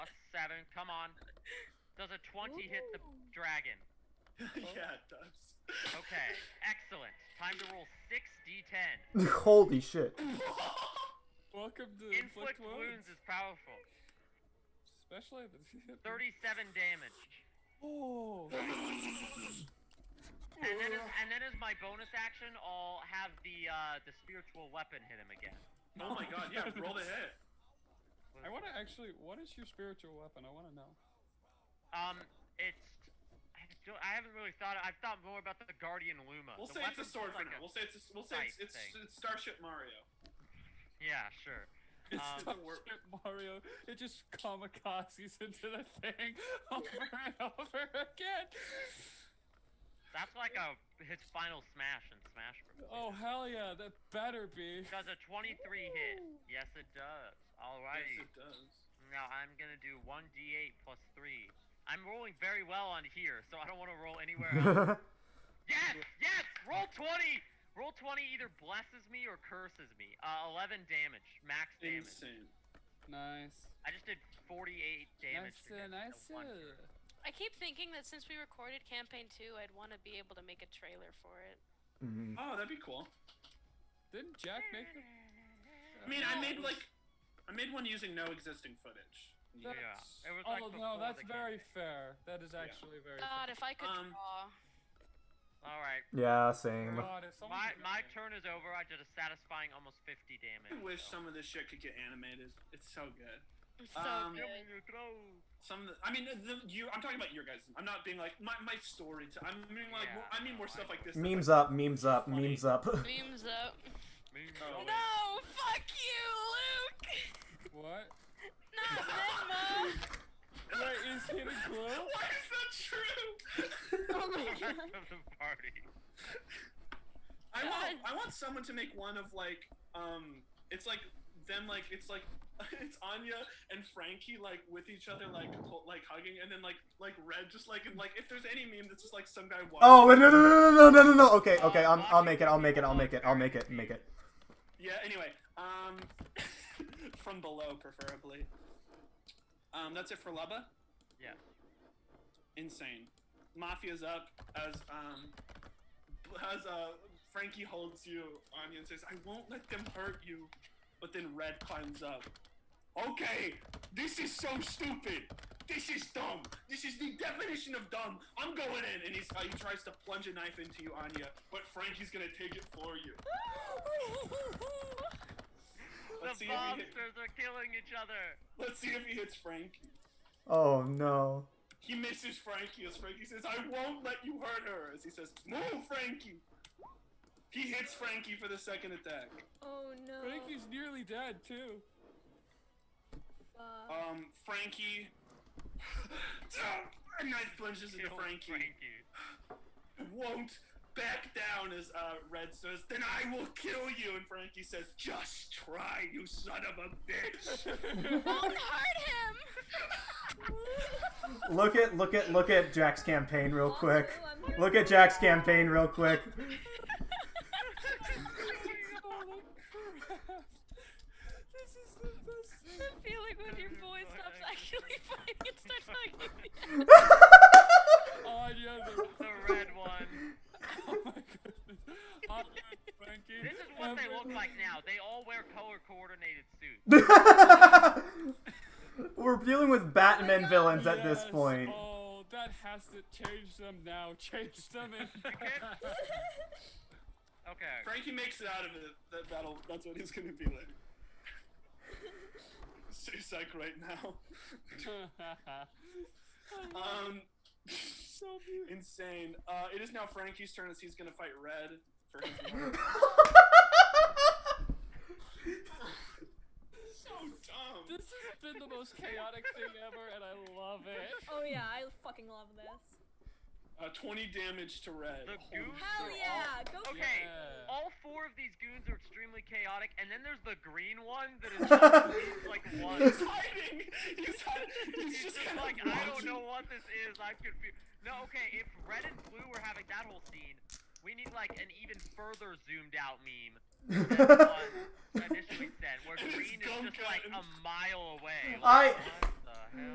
Saturn. Come on. Does a 20 hit the dragon? yeah, it does. Okay. Excellent. Time to roll 6d10. Holy shit. Welcome to Inflict Inflict wounds Wounds. is powerful. Especially at the 37 damage. Oh. And then, as, and then as my bonus action, I'll have the uh, the spiritual weapon hit him again. Oh my god, yeah, roll the hit. I want to actually. What is your spiritual weapon? I want to know. Um, it's. I don't- I haven't really thought. I've thought more about the Guardian Luma. We'll The say weapon's it's a sword for like now. a- We'll say it's a, we'll say it's, sight it's, thing. it's Starship Mario. yeah, sure. It's Um, the wor- Shit, Mario, it just kamikazes into the thing over and over again. That's like a his final smash in Smash Bros. Oh hell yeah, that better be. Does a 23 hit? Yes, it does. Alrighty. Yes, it does. Now I'm gonna do 1d8 plus 3. I'm rolling very well on here, so I don't want to roll anywhere else. yes, yes. Roll 20. Roll 20 either blesses me or curses me. Uh, 11 damage, max damage. Insane. Nice. I just did 48 damage. Nice, to this uh, nice. one turn. uh. I keep thinking that since we recorded campaign two, I'd want to be able to make a trailer for it. Mm. Oh, that'd be cool. Didn't Jack make the? I mean, I made like, I made one using no existing footage. That's- Yeah, it was like oh before no, that's the very campaign. fair. That is Yeah. actually very. God, if I could Um, draw. All right. Yeah, fair. same. Oh, God, if someone My could- my turn is over. I did a satisfying almost 50 damage. I wish so- some of this shit could get animated. It's so good. So um, good. Some, of the, I mean, the, you. I'm talking about your guys. I'm not being like my my story. i I'm meaning like Yeah, more, I mean more no, stuff I- like this. Memes that's up, memes up, Funny. memes up. Beams up. Oh, Meow. wait. No, fuck you, Luke. What? Not Venmo. Wait, is he the Like, glue? Why is that true? of the party. I want God. I want someone to make one of like um it's like them like it's like it's Anya and Frankie like with each other like hol- like hugging and then like like Red just like and, like if there's any meme that's just like some guy walking Oh wait, no no no no no no no no. Okay okay, I'm, I'll make it. I'll make it. I'll make it. I'll make it. Make it. yeah anyway um from below preferably um that's it for Lubba Yeah. insane Mafia's up as um as uh Frankie holds you Anya and says I won't let them hurt you but then Red climbs up Okay, this is so stupid. This is dumb. This is the definition of dumb. I'm going in, and he's, uh, he tries to plunge a knife into you, Anya, but Frankie's gonna take it for you. The Let's see, if he hit, monsters are killing each other. let's see if he hits Frankie. Oh no. He misses Frankie as Frankie says, I won't let you hurt her. As he says, Move, Frankie! He hits Frankie for the second attack. Oh no. Frankie's nearly dead too. Fuck. Um, Frankie. ah, a knife plunges into Kill Frankie. won't back down as uh, Red says, then I will kill you. And Frankie says, just try, you son of a bitch. Won't hurt him. Look at look at look at Jack's campaign real quick. Oh, Also, I'm here Look for at Jack's campaign real quick. Holy crap. This is the best thing. I'm feeling when your voice stops actually funny and starts hugging me. Anya, the, The red one. oh my goodness. Anya and Frankie. This is what they look every- like now. They all wear color coordinated suits. We're dealing with Batman villains at this Yes, point. Oh, that has to change them now. Change them in. Okay. Frankie makes it out of it. That battle, that's what he's going to be like. So psych right now. Um, so beautiful. insane. Uh, it is now Frankie's turn as he's going to fight Red. For his so dumb. This has been the most chaotic thing ever, and I love it. Oh yeah, I fucking love this. Uh, 20 damage to Red. The goons. Holy are Hell all- yeah, go for Okay. it. Yeah. All four of these goons are extremely chaotic, and then there's the green one that is just like one. He's hiding. He's hiding. He's, He's just, just kind like, of I don't know what this is. I'm confused. No, okay, if red and blue were having that whole scene, we need like an even further zoomed out meme than the one that initially sent, where And it's green is gum just like a cotton. mile away. Like, I- what the hell?